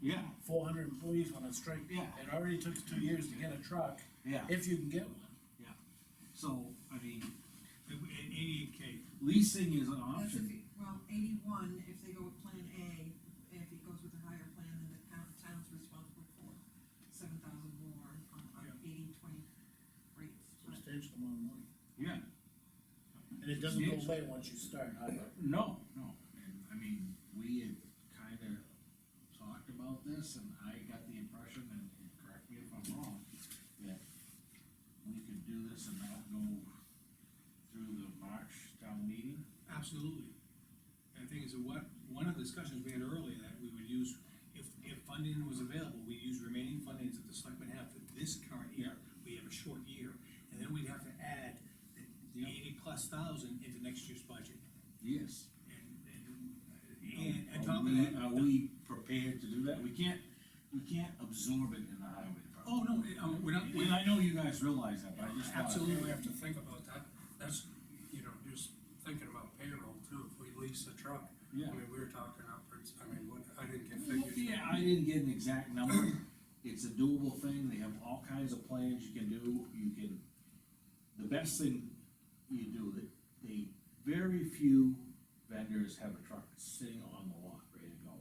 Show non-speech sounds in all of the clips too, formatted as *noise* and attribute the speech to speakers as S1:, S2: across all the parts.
S1: Yeah,
S2: four hundred employees went on strike.
S1: Yeah.
S2: It already took us two years to get a truck,
S1: yeah,
S2: if you can get one.
S1: yeah. So, I mean,
S3: eighty-eight K.
S1: leasing is an
S4: That's if
S1: option.
S4: you, well, eighty-one, if they go with plan A, if it goes with a higher plan, then the town, town's responsible for seven thousand more on, on
S3: Yeah.
S4: eighty, twenty rates. But
S2: Substantial amount of money.
S1: Yeah,
S2: And it doesn't go away once you start either.
S1: no, no.
S5: And I mean, we had kinda talked about this, and I got the impression, and and correct me if I'm wrong, that we could do this and not go through the March town meeting.
S3: Absolutely. And the thing is, what, one of the discussions we had earlier, that we would use, if, if funding was available, we use remaining fundings that the selectmen have for this current year, we have a short year, and then we'd have to add the- the
S5: Yep.
S3: eighty-plus thousand into next year's budget.
S5: Yes.
S3: And, and, and on
S5: Are
S3: top of
S5: we,
S3: that.
S5: are we prepared to do that? We can't, we can't absorb it in the highway department.
S3: Oh, no, it- uh, we're not, we're
S5: And
S3: not,
S5: I know you guys realize that, but I just. wanna-
S6: Absolutely, we have to think about that, that's, you know, just thinking about payroll too, if we lease a truck.
S5: Yeah.
S6: I mean, we were talking upwards, I mean, what, I didn't get
S5: Well,
S6: figures.
S5: Yeah, I didn't get an exact number, it's a doable thing, they have all kinds of plans you can do, you can, the best thing you do, that they, very few vendors have a truck sitting on the lot, ready to go.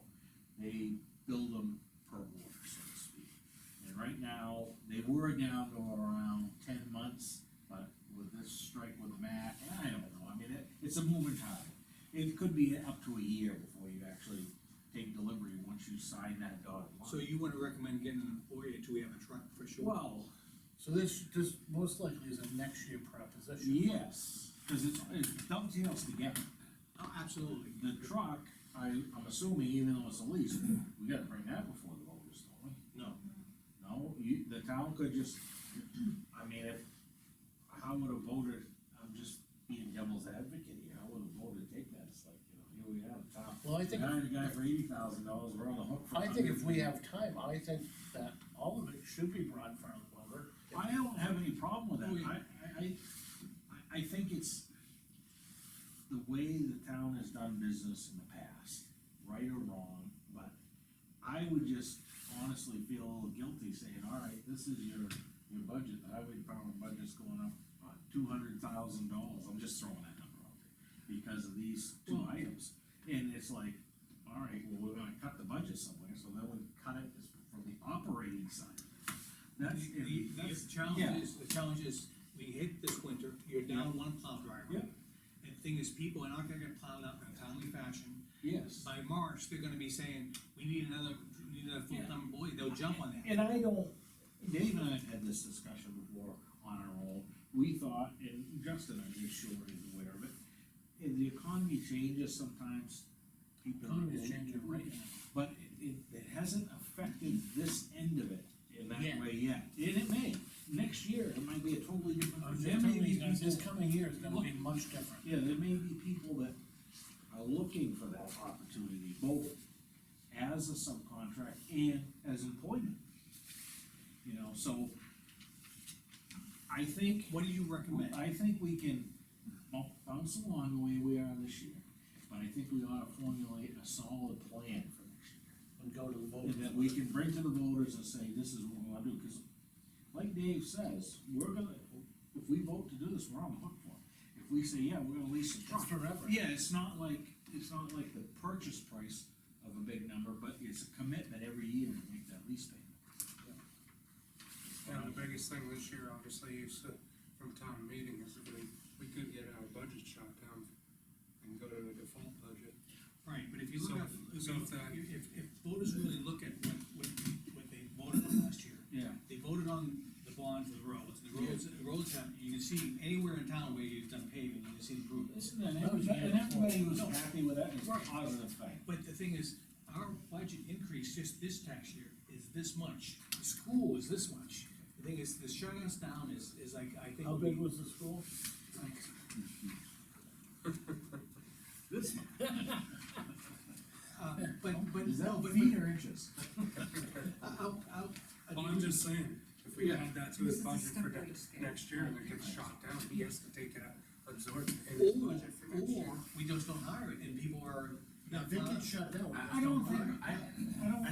S5: They build them per order, so to speak, and right now, they were down to around ten months, but with this strike with the MAC, I don't know, I mean, it, it's a moving target. It could be up to a year before you actually take delivery once you sign that dotted line.
S3: so you wanna recommend getting an employee until we have a truck for sure?
S5: Well,
S2: So this, this most likely is a next year proposition.
S5: yes, cause it's, it dovetails together.
S3: Oh, absolutely.
S5: The truck, I, I'm assuming even though it's a lease, we gotta bring that before the voters, don't we?
S3: No.
S5: No, you, the town could just, I mean, if, how would a voter, I'm just being devil's advocate here, how would a voter take that? It's like, you know, here we have a town.
S2: Well, I think,
S5: Hired a guy for eighty thousand dollars, we're on the hook for.
S2: I think if we
S5: 100.
S2: have time, I think that all of it should be brought in front of the voter.
S5: I don't have any problem with
S3: Oh,
S5: that, I,
S3: yeah.
S5: I, I, I think it's the way the town has done business in the past, right or wrong, but I would just honestly feel a little guilty saying, all right, this is your, your budget, the highway department budget's going up uh, two hundred thousand dollars, I'm just throwing that number out there, because of these two items, and it's like, all right, well, we're gonna cut the budget somewhere, so then we cut it from the operating side. That's,
S3: The- The,
S5: that's,
S3: the challenge
S5: yeah.
S3: is, the challenge is, we hit this winter, you're down one plow driver.
S5: Yeah.
S3: And the thing is, people are not gonna get plowed up in a timely fashion,
S5: yes.
S3: by March, they're gonna be saying, we need another, we need another full-time employee, they'll jump on that.
S5: And I don't, Dave and I have had this discussion before on our own, we thought, and Justin, I'm just sure is aware of it, and the economy changes sometimes. people aren't
S2: Economy's
S5: willing to
S2: changing right now.
S5: But it- it, it hasn't affected this end of it in that
S2: Yeah.
S5: way yet, and it may, next year, it might be a totally different.
S2: I'm
S5: there
S2: just
S5: may
S2: telling
S5: be
S2: you guys, this
S5: people-
S2: coming year is gonna be much different.
S5: Yeah, there may be people that are looking for that opportunity, both as a subcontract and as employment. You know, so I think,
S3: What do you recommend?
S5: I think we can bump- bounce along the way we are this year, but I think we ought to formulate a solid plan for next year.
S2: And go to the
S5: And
S2: voters.
S5: that we can bring to the voters and say, this is what we wanna do, cause like Dave says, we're gonna, if we vote to do this, we're on the hook for it. If we say, yeah, we're gonna lease the
S2: It's
S5: truck,
S2: forever.
S5: yeah, it's not like, it's not like the purchase price of a big number, but it's a commitment every year to make that lease
S6: And the
S5: payment.
S6: biggest thing this year, obviously, is uh, from town meeting, is that we, we could get our budget shot down and go to a default budget.
S3: Right, but if you look
S6: So-
S3: at, if,
S6: so if that-
S3: if, if voters really look at what, what, what they voted on last year,
S5: Yeah,
S3: they voted on the bond for the roads, the roads, the roads have, you can see anywhere in town where you've done paving, you can see improvements.
S5: Isn't that-
S2: That was the year
S5: and everybody was
S2: before.
S5: happy with that, it's a positive thing.
S3: But the thing is, our budget increase just this tax year is this much, the school is this much. The thing is, the shutting us down is, is like, I think.
S2: How big was the school?
S3: *laughs*
S5: This month.
S3: Uh, But, but,
S5: Is that
S3: no, but,
S5: feet or inches?
S3: I'll, I'll.
S6: Well, I'm just saying, if we
S5: Yeah.
S6: add that to
S4: This is
S6: his
S4: a
S6: budget for
S4: slippery
S6: next,
S4: scale.
S6: next year, and it gets shot down, he has to take it out, absorb it in his
S3: Or,
S6: budget for next year.
S3: or we just don't hire it and people are.
S2: Now, if it gets shut down.
S5: I don't think, I, I don't